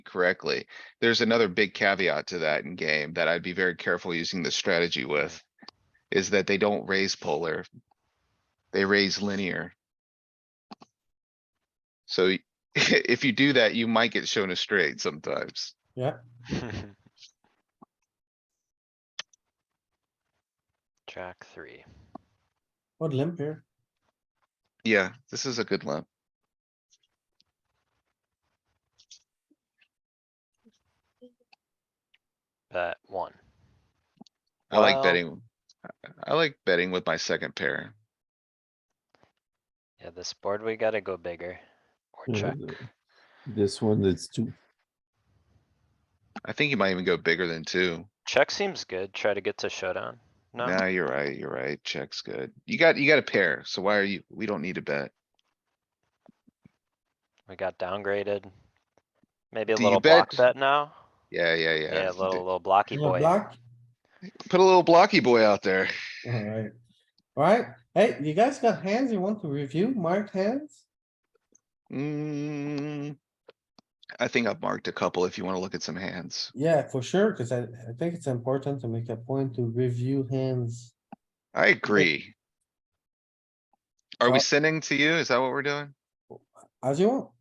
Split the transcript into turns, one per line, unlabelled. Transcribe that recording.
correctly. There's another big caveat to that in game that I'd be very careful using this strategy with. Is that they don't raise polar. They raise linear. So y- if you do that, you might get shown a straight sometimes.
Jack three.
What limp here?
Yeah, this is a good limp.
Bet one.
I like
Well-
betting. I- I like betting with my second pair.
Yeah, this board, we gotta go bigger. Or
Yeah,
check.
the- This one, it's two.
I think you might even go bigger than two.
Check seems good. Try to get to showdown. No,
Nah, you're right, you're right. Check's good. You got, you got a pair, so why are you, we don't need a bet.
we got downgraded. Maybe a
Do you
little block
bet?
bet now?
Yeah, yeah, yeah.
Yeah, a
D-
little, little blocky
Little
boy.
block?
Put a little blocky boy out there.
Alright. Alright, hey, you guys got hands you want to review, marked hands?
Mm. I think I've marked a couple if you wanna look at some hands.
Yeah, for sure, cuz I, I think it's important to make a point to review hands.
I agree. Are we
Well-
sending to you? Is that what we're doing?
As you want,